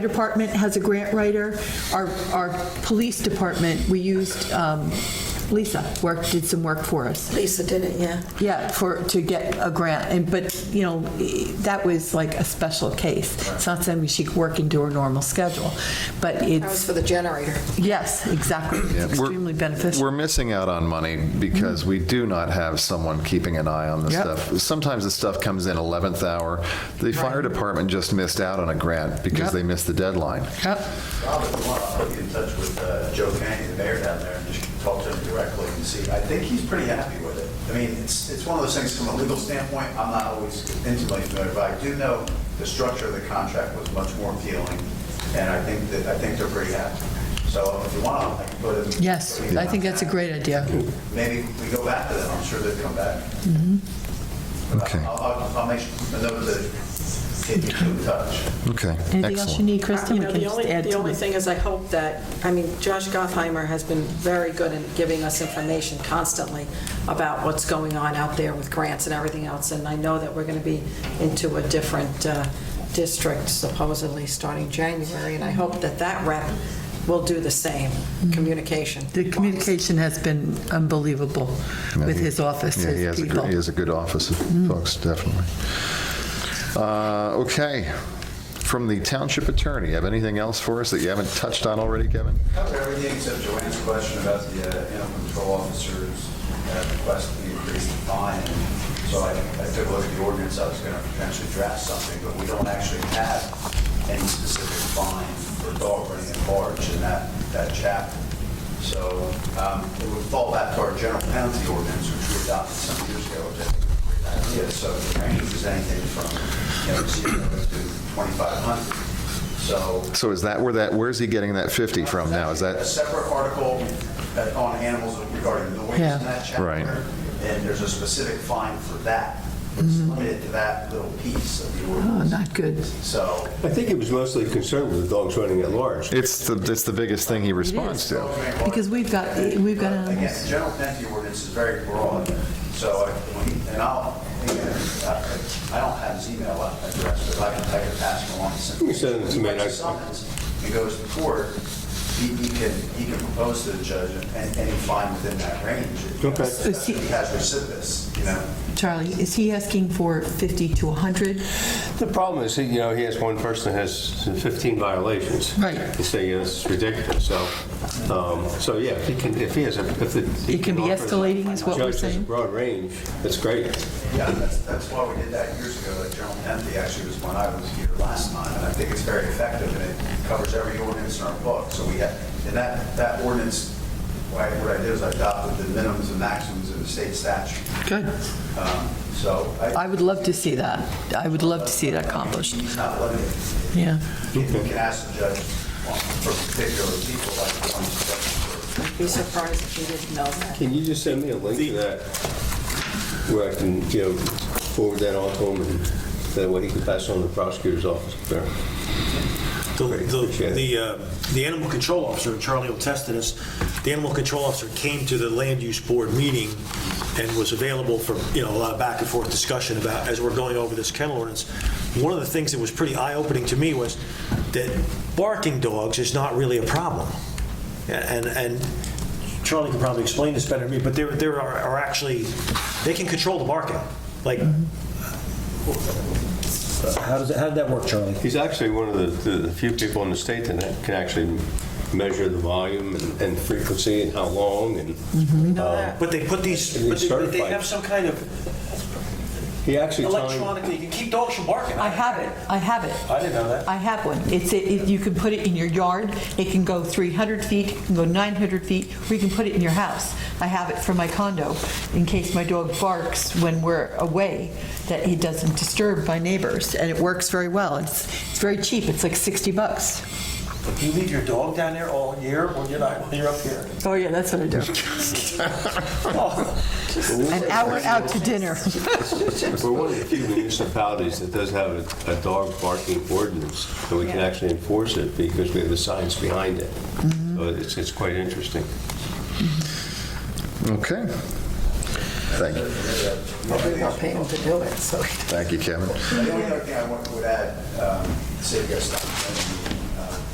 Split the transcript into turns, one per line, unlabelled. department has a grant writer. Our, our police department, we used, um, Lisa worked, did some work for us.
Lisa did it, yeah.
Yeah, for, to get a grant, and, but, you know, that was like a special case. It's not something she could work into her normal schedule, but
That was
it's,
for the generator.
yes, exactly, It's
We're-
extremely beneficial.
We're missing out on money because we do not have someone keeping an eye on the
Yep.
stuff. Sometimes the stuff comes in 11th hour. The fire department just missed out on a grant because
Yep.
they missed the deadline.
Yep.
Rob, if you want, I'll put you in touch with uh, Joe Kenny, the mayor down there, and just talk to him directly and see. I think he's pretty happy with it. I mean, it's, it's one of those things from a legal standpoint, I'm not always intimately familiar, but I do know the structure of the contract was much more appealing, and I think that, I think they're pretty happy. So if you want, I can put it.
Yes, I think that's a great idea.
Maybe we go back to them, I'm sure they'll come back.
Mm-hmm.
But
Okay.
I'll, I'll- I'll make a note to get you in touch.
Okay,
Anything else you
excellent.
need, Kristen?
You
We
know,
can
the
just
only,
add
the
to
only
it.
thing is I hope that, I mean, Josh Gottheimer has been very good in giving us information constantly about what's going on out there with grants and everything else, and I know that we're going to be into a different uh, district supposedly starting January, and I hope that that rep will do the same, communication.
Mm-hmm. The communication has been unbelievable with his office,
Yeah, he
his
has a
people. Mm.
good, he has a good office of folks, definitely. Uh, Okay, from the township attorney, have anything else for us that you haven't touched on already, Kevin?
covered everything except Joanne's question about the uh, animal control officers uh, requesting the increased fine. So I I took a look at the ordinance, I was going to potentially draft something, but we don't actually have any specific fine for dog running at large in that, that chapter. So um, it would fall back to our general penalty ordinance, which we adopted some years ago, which I think is a great idea. So the range is anything from, you know, zero to 2,500. So
So is that where that, where's he getting that 50 from now? Is
a
that,
separate article uh, on animals regarding noise in
Yeah.
that chapter.
Right.
And there's a specific fine for that. It's limited to that little piece of the
Mm-hmm. Oh,
ordinance.
not good.
So
I think he was mostly concerned with the dogs running at large.
it's the, it's the biggest thing he responds to.
Because we've got, we've got um,
Again,
animals.
the general penalty ordinance is very broad, so, I- when- and I'll, again, I I don't have his email address, but I can take a pass along.
You can send it to me, and I-
He summons, He goes to court, he he can, he can propose to the judge and any fine within that range.
Okay.
Is he-
He has recidivists, you know?
Charlie, is he asking for 50 to 100?
The problem is, you know, he has one person that has 15 violations.
Right.
You say, you know, this is ridiculous, so, um, so yeah, if he can, if he has a, if the. he
It can be
offer the
escalating is what we're
Judge has a
saying?
broad range, that's great.
Yeah, that's, that's why we did that years ago, that general penalty actually was when I was here last time, and I think it's very effective, and it covers every ordinance in our book, so we had, and that, that ordinance, what I what I did is I adopted the minimums and maxims of the state statute,
Good.
Um, so I.
I would love to see that. I would love to see it accomplished.
He's not limited.
Yeah.
You can ask the judge on- for particular people, like the ones that.
I'd Be surprised if you didn't know that.
Can you just send me a link to that, where I can, you know, forward that on to him, and that way he can pass on to the prosecutor's office there?
The,
Great,
the,
appreciate it.
the, uh, the animal control officer, and Charlie will test to this, the animal control officer came to the land use board meeting and was available for, you know, a lot of back and forth discussion about, as we're going over this kennel ordinance. One of the things that was pretty eye-opening to me was that barking dogs is not really a problem. And, and Charlie can probably explain this better than me, but there, there are are actually, they can control the barking. Like, how does, it- how did that work, Charlie?
He's actually one of the- the, the few people in the state that can actually measure the volume and- and frequency and how long, and uh,
But they put these,
And they
but they- but they
certify.
have some kind of
he actually timed,
electronic, you can keep dogs from barking.
I have it. I have it.
I didn't know that.
I have one. It's, a- it- you can put it in your yard. It can go 300 feet, it can go 900 feet, or you can put it in your house. I have it for my condo in case my dog barks when we're away, that he doesn't disturb my neighbors. And it works very well. It's, it's very cheap. It's like 60 bucks.
You leave your dog down there all year when you're not, when you're up here.
Oh, yeah, that's what I do. Oh, An hour out to dinner.
we're one of the few municipalities that does have a- a dog barking ordinance, and we can actually enforce it because we have the science behind it. So it's, it's quite interesting.
Okay. Thank you.
We won't pay him to do it, so.
Thank you, Kevin.
The only other thing I want- would add, um, save you guys time,